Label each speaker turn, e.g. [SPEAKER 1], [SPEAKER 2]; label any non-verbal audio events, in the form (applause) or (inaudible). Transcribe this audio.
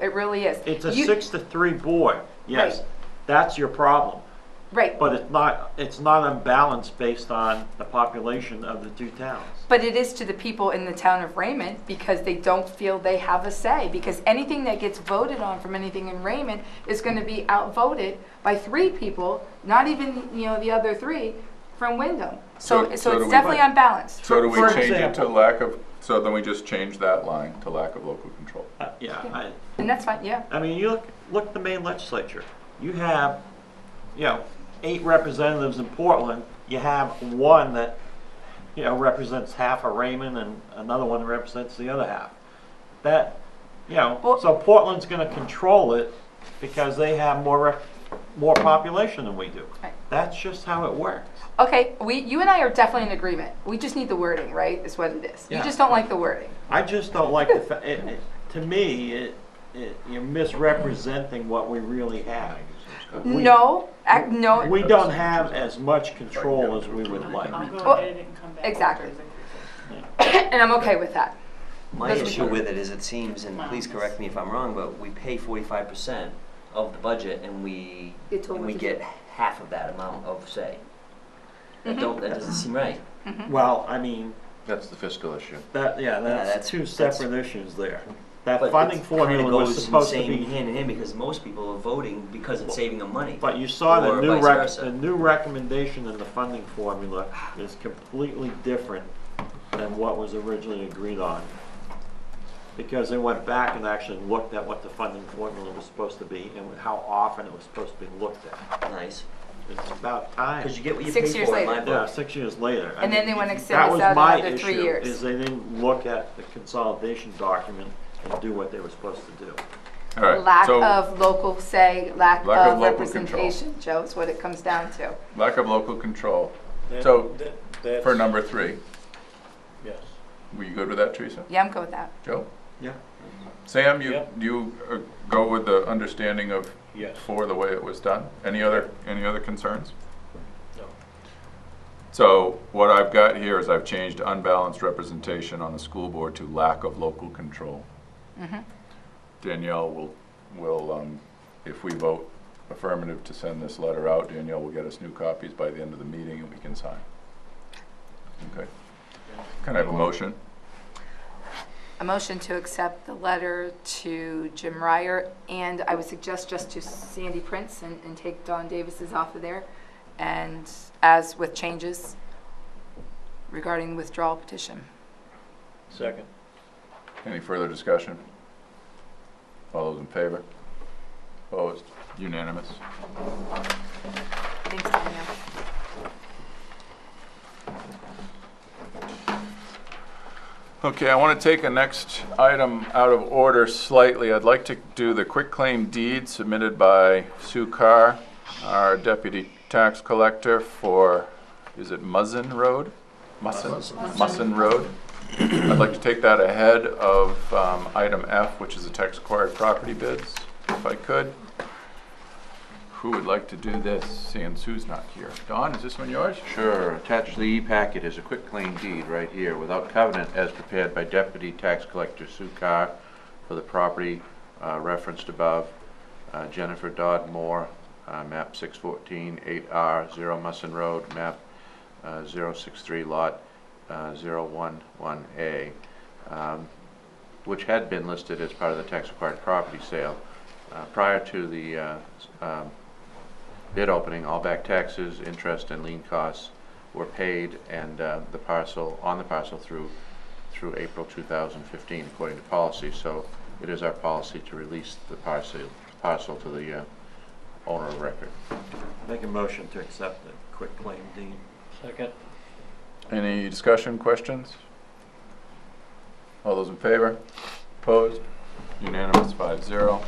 [SPEAKER 1] It really is.
[SPEAKER 2] It's a
[SPEAKER 1] You-
[SPEAKER 2] six to three board, yes,
[SPEAKER 1] Right.
[SPEAKER 2] that's your problem.
[SPEAKER 1] Right,
[SPEAKER 2] But it's not, it's not unbalanced based on the population of the two towns.
[SPEAKER 1] but it is to the people in the town of Raymond because they don't feel they have a say. Because anything that gets voted on from anything in Raymond is going to be outvoted by three people, not even, you know, the other three from Wyndham. So,
[SPEAKER 3] So-
[SPEAKER 1] so
[SPEAKER 3] so do
[SPEAKER 1] it's
[SPEAKER 3] we-
[SPEAKER 1] definitely unbalanced.
[SPEAKER 3] So do we
[SPEAKER 2] For
[SPEAKER 3] change it to
[SPEAKER 2] example.
[SPEAKER 3] lack of, so then we just change that line to lack of local control?
[SPEAKER 2] Uh, Yeah, I,
[SPEAKER 1] And that's fine, yeah.
[SPEAKER 2] I mean, you look, look at the Maine legislature. You have, you know, eight representatives in Portland. You have one that, you know, represents half of Raymond and another one represents the other half. That, you know,
[SPEAKER 1] Well-
[SPEAKER 2] so Portland's gonna control it because they have more rep, more population than we do.
[SPEAKER 1] Right.
[SPEAKER 2] That's just how it works.
[SPEAKER 1] Okay, we, you and I are definitely in agreement. We just need the wording, right? Is what it is. You
[SPEAKER 2] Yeah.
[SPEAKER 1] just don't like the wording.
[SPEAKER 2] I just don't like the fa- it, it, to me, it, it, you're misrepresenting what we really have. We-
[SPEAKER 1] No, ac- no.
[SPEAKER 2] We don't have as much control as we would
[SPEAKER 4] I'll
[SPEAKER 2] like.
[SPEAKER 4] go
[SPEAKER 1] Well,
[SPEAKER 4] and edit it and come back.
[SPEAKER 1] exactly. (coughs) and I'm okay with that.
[SPEAKER 5] My
[SPEAKER 1] That's what
[SPEAKER 5] issue
[SPEAKER 1] we-
[SPEAKER 5] with it is it seems, and please correct me if I'm wrong, but we pay forty-five percent of the budget and we,
[SPEAKER 1] Get told what
[SPEAKER 5] and we
[SPEAKER 1] to do.
[SPEAKER 5] get half of that amount of say.
[SPEAKER 1] Mm-hmm.
[SPEAKER 5] That don't, that doesn't seem right.
[SPEAKER 2] Well, I mean,
[SPEAKER 3] That's the fiscal issue.
[SPEAKER 2] that, yeah, that's
[SPEAKER 5] that's-
[SPEAKER 2] two
[SPEAKER 5] that's-
[SPEAKER 2] separate issues there. That
[SPEAKER 5] But
[SPEAKER 2] funding
[SPEAKER 5] it's kinda
[SPEAKER 2] formula was
[SPEAKER 5] goes
[SPEAKER 2] supposed to
[SPEAKER 5] insane
[SPEAKER 2] be,
[SPEAKER 5] Hand in hand, because most people are voting because it's saving them money.
[SPEAKER 2] but you saw the
[SPEAKER 5] or
[SPEAKER 2] new
[SPEAKER 5] vice
[SPEAKER 2] rec,
[SPEAKER 5] versa.
[SPEAKER 2] the new recommendation in the funding formula is completely different than what was originally agreed on. Because they went back and actually looked at what the funding formula was supposed to be and how often it was supposed to be looked at.
[SPEAKER 5] Nice,
[SPEAKER 2] It's about time.
[SPEAKER 5] because you get what you pay
[SPEAKER 1] Six years
[SPEAKER 5] for in my
[SPEAKER 1] later.
[SPEAKER 2] Yeah,
[SPEAKER 5] book. (coughs)
[SPEAKER 2] six years later. I
[SPEAKER 1] And then
[SPEAKER 2] mean,
[SPEAKER 1] they wanna
[SPEAKER 2] if-
[SPEAKER 1] extend this out another three
[SPEAKER 2] That was my
[SPEAKER 1] years.
[SPEAKER 2] issue, is they didn't look at the consolidation document and do what they were supposed to do.
[SPEAKER 3] All right,
[SPEAKER 1] Lack
[SPEAKER 3] so
[SPEAKER 1] of local say, lack
[SPEAKER 3] Lack of
[SPEAKER 1] of
[SPEAKER 3] local control.
[SPEAKER 1] representation, Joe, is what it comes down to.
[SPEAKER 3] Lack of local control.
[SPEAKER 6] That-
[SPEAKER 3] So,
[SPEAKER 6] that- that's-
[SPEAKER 3] for number three,
[SPEAKER 6] Yes.
[SPEAKER 3] were you good with that, Teresa?
[SPEAKER 1] Yeah, I'm good with that.
[SPEAKER 3] Joe?
[SPEAKER 2] Yeah.
[SPEAKER 3] Sam, you,
[SPEAKER 6] Yep.
[SPEAKER 3] you uh, go with the understanding of
[SPEAKER 6] Yes.
[SPEAKER 3] for the way it was done? Any other, any other concerns?
[SPEAKER 6] No.
[SPEAKER 3] So what I've got here is I've changed unbalanced representation on the school board to lack of local control. Danielle will, will, um, if we vote affirmative to send this letter out, Danielle will get us new copies by the end of the meeting and we can sign. Okay. Can I have a motion?
[SPEAKER 1] A motion to accept the letter to Jim Ryer, and I would suggest just to Sandy Prince and, and take Don Davis's off of there, and as with changes regarding withdrawal petition.
[SPEAKER 6] Second.
[SPEAKER 3] Any further discussion? All those in favor? Opposed? Unanimous?
[SPEAKER 1] Thanks, Danielle.
[SPEAKER 3] Okay, I want to take a next item out of order slightly. I'd like to do the quitclaim deed submitted by Sue Carr, our deputy tax collector for, is it Muzzin Road? Musson, Musson Road. I'd like to take that ahead of um, item F, which is the tax acquired property bids, if I could. Who would like to do this, seeing Sue's not here? Don, is this one yours?
[SPEAKER 7] Sure, attached to the e-packet is a quick claim deed right here, without covenant as prepared by Deputy Tax Collector Sue Carr for the property uh, referenced above, uh, Jennifer Dodd Moore, uh, map 614, 8R, 0 Musson Road, map uh, 063, lot uh, 011A, um, which had been listed as part of the tax-acquired property sale. Uh, Prior to the uh, s- um, bid opening, all back taxes, interest, and lien costs were paid and uh, the parcel, on the parcel through, through April 2015, according to policy. So it is our policy to release the parcel, parcel to the uh, owner of record.
[SPEAKER 2] Make a motion to accept the quick claim deed.
[SPEAKER 6] Second.
[SPEAKER 3] Any discussion, questions? All those in favor? Opposed? Unanimous, five zero.